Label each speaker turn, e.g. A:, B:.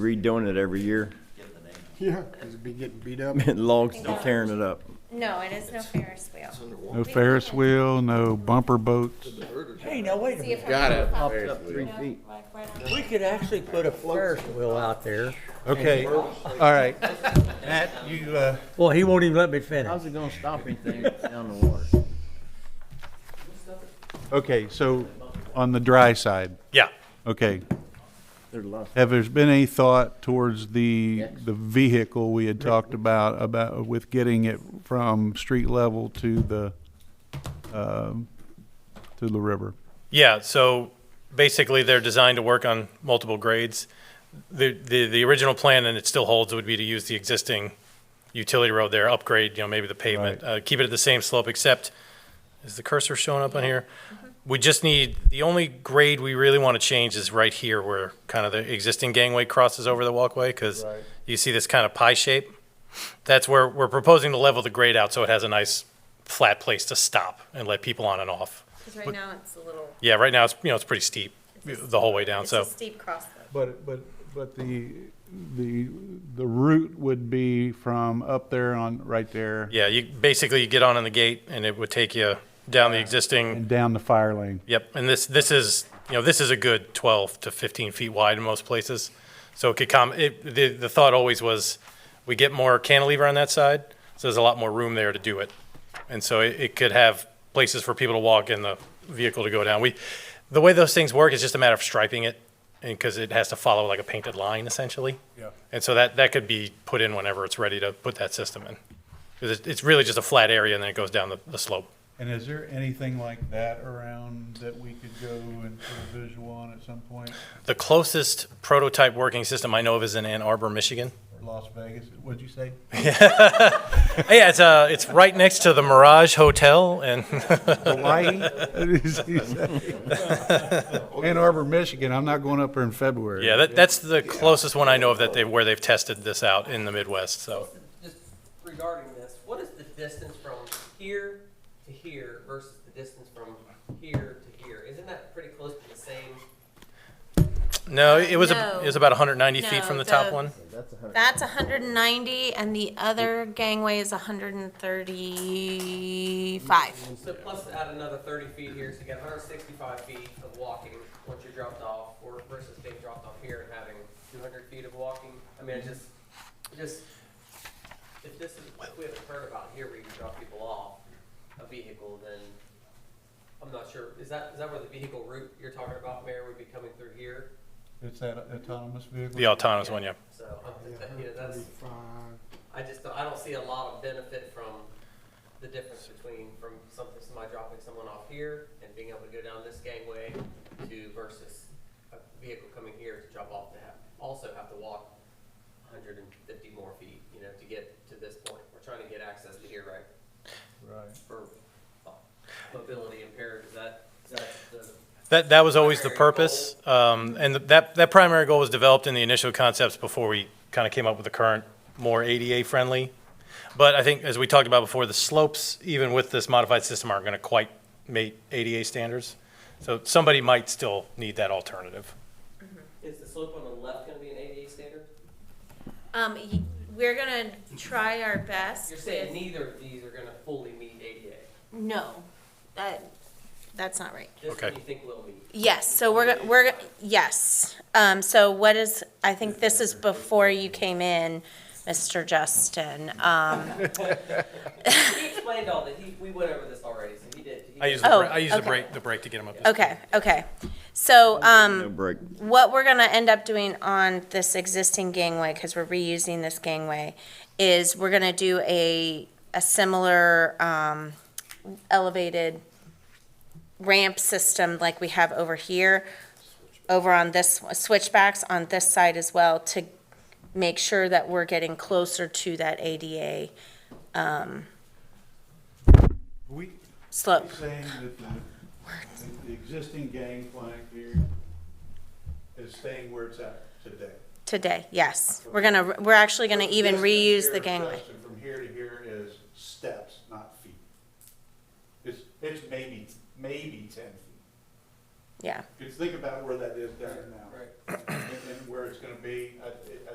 A: redoing it every year.
B: Yeah, because it'd be getting beat up.
A: Logs be tearing it up.
C: No, it is no Ferris wheel.
D: No Ferris wheel, no bumper boats.
E: Hey, now wait a
C: See
E: minute.
C: if
F: Got
C: her-
F: it.
C: pops
F: Ferris
C: up,
F: wheel.
C: you know, like right on-
E: We could actually put a Ferris wheel out there.
D: Okay, all right. Matt, you, uh,
E: Well, he won't even let me finish.
A: it gonna stop anything down the water?
D: okay, so on the dry side,
G: Yeah.
D: okay.
A: There's lots.
D: Have there's been any thought towards the, the vehicle we had talked about, about with getting it from street level to the, um, to the river?
G: Yeah. So basically, they're designed to work on multiple grades. The, the, the original plan, and it still holds, would be to use the existing utility road there, upgrade, you know, maybe the pavement, uh, keep it at the same slope, except, is the cursor showing up on here? We just need, the only grade we really want to change is right here where kind of the existing gangway crosses over the walkway, because you see this kind of pie shape? That's where we're proposing to level the grade out so it has a nice flat place to stop and let people on and off.
C: 'cause right now it's a little,
G: Yeah, right now it's you know it's pretty steep the whole way down.
C: it's a
G: So
C: steep crossroad.
D: But, but, but the, the, the route would be from up there on, right there
G: yeah, you basically you get on in the gate and it would take you down the existing.
D: and down the fire lane.
G: Yep, and this this is you know this is a good 12 to 15 feet wide in most places. So it could come. It, the the thought always was we get more cantilever on that side, so there's a lot more room there to do it, and so it, it could have places for people to walk and the vehicle to go down. We the way those things work is just a matter of striping it, and because it has to follow like a painted line essentially. Yeah. And so that that could be put in whenever it's ready to put that system in, because it's, it's really just a flat area and then it goes down the, the slope.
D: And is there anything like that around that we could go and put a visual on at some point,
G: The closest prototype working system I know of is in Ann Arbor, Michigan.
D: or Las Vegas, what'd you say?
G: Yeah, it's uh, it's right next to the Mirage Hotel, and
D: Hawaii? Ann Arbor, Michigan, I'm not going up there in February.
G: yeah, that, that's the closest one I know of that they where they've tested this out in the Midwest. So
H: Just regarding this, what is the distance from here to here versus the distance from here to here? Isn't that pretty close to the same?
G: no, it was
C: No.
G: a, it was about 190 feet
C: No,
G: from the, top
C: the-
G: one.
C: That's hundred and ninety and the other gangway is hundred and thirty-five.
H: So plus add another thirty feet here, so you got hundred sixty-five feet of walking once you're dropped off, or versus being dropped off here and having two hundred feet of walking. I mean, it just, it just, if this is, if we haven't heard about here where you can drop people off a vehicle, then I'm not sure, is that, is that where the vehicle route you're talking about, Mayor, would be coming through here?
D: It's that autonomous vehicle?
G: The autonomous one, yeah.
H: So, um,
B: Yeah,
H: that- you know, that's,
B: 135.
H: I just, don't- I don't see a lot of benefit from the difference between, from something, somebody dropping someone off here and being able to go down this gangway to versus a vehicle coming here to drop off to have, also have to walk hundred and fifty more feet, you know, to get to this point. We're trying to get access to here, right,
D: Right.
H: for uh, mobility impaired, is that, is that the?
G: That, that was always the
H: Primary goal.
G: purpose, um, and that, that primary goal was developed in the initial concepts before we kind of came up with the current more ADA-friendly. But I think, as we talked about before, the slopes, even with this modified system, aren't going to quite meet ADA standards. So somebody might still need that alternative.
H: Is the slope on the left gonna be an ADA standard?
C: Um, y- we're gonna try our best
H: You're saying
C: with,
H: neither of these are gonna fully meet ADA.
C: no, that, that's not right.
H: This
G: Okay.
H: one you think will meet.
C: Yes, so we're, go- we're, go- yes. Um, so what is, I think this is before you came in, Mr. Justin. Um,
H: He explained all that. He, we went over this already, so he did. He
G: I
H: did.
G: used the,
C: Oh,
G: bra- I used the
C: okay.
G: brake, the brake to get them up. to speed.
C: okay, okay. So, um,
A: No break.
C: what we're gonna end up doing on this existing gangway, because we're reusing this gangway, is we're gonna do a, a similar, um, elevated ramp system like we have over here, over on this, switchbacks on this side as well, to make sure that we're getting closer to that ADA
D: We,
C: slope.
D: saying that the, that the existing gangplank here is staying where it's at today.
C: Today, yes. We're gonna, we're actually gonna even
D: Distance
C: reuse the
D: here,
C: gangway.
D: Justin, From here to here is steps, not feet. It's, it's maybe, maybe ten feet.
C: Yeah,
D: Because think about where that is down now.
H: Right.
D: And and where it's gonna be, I-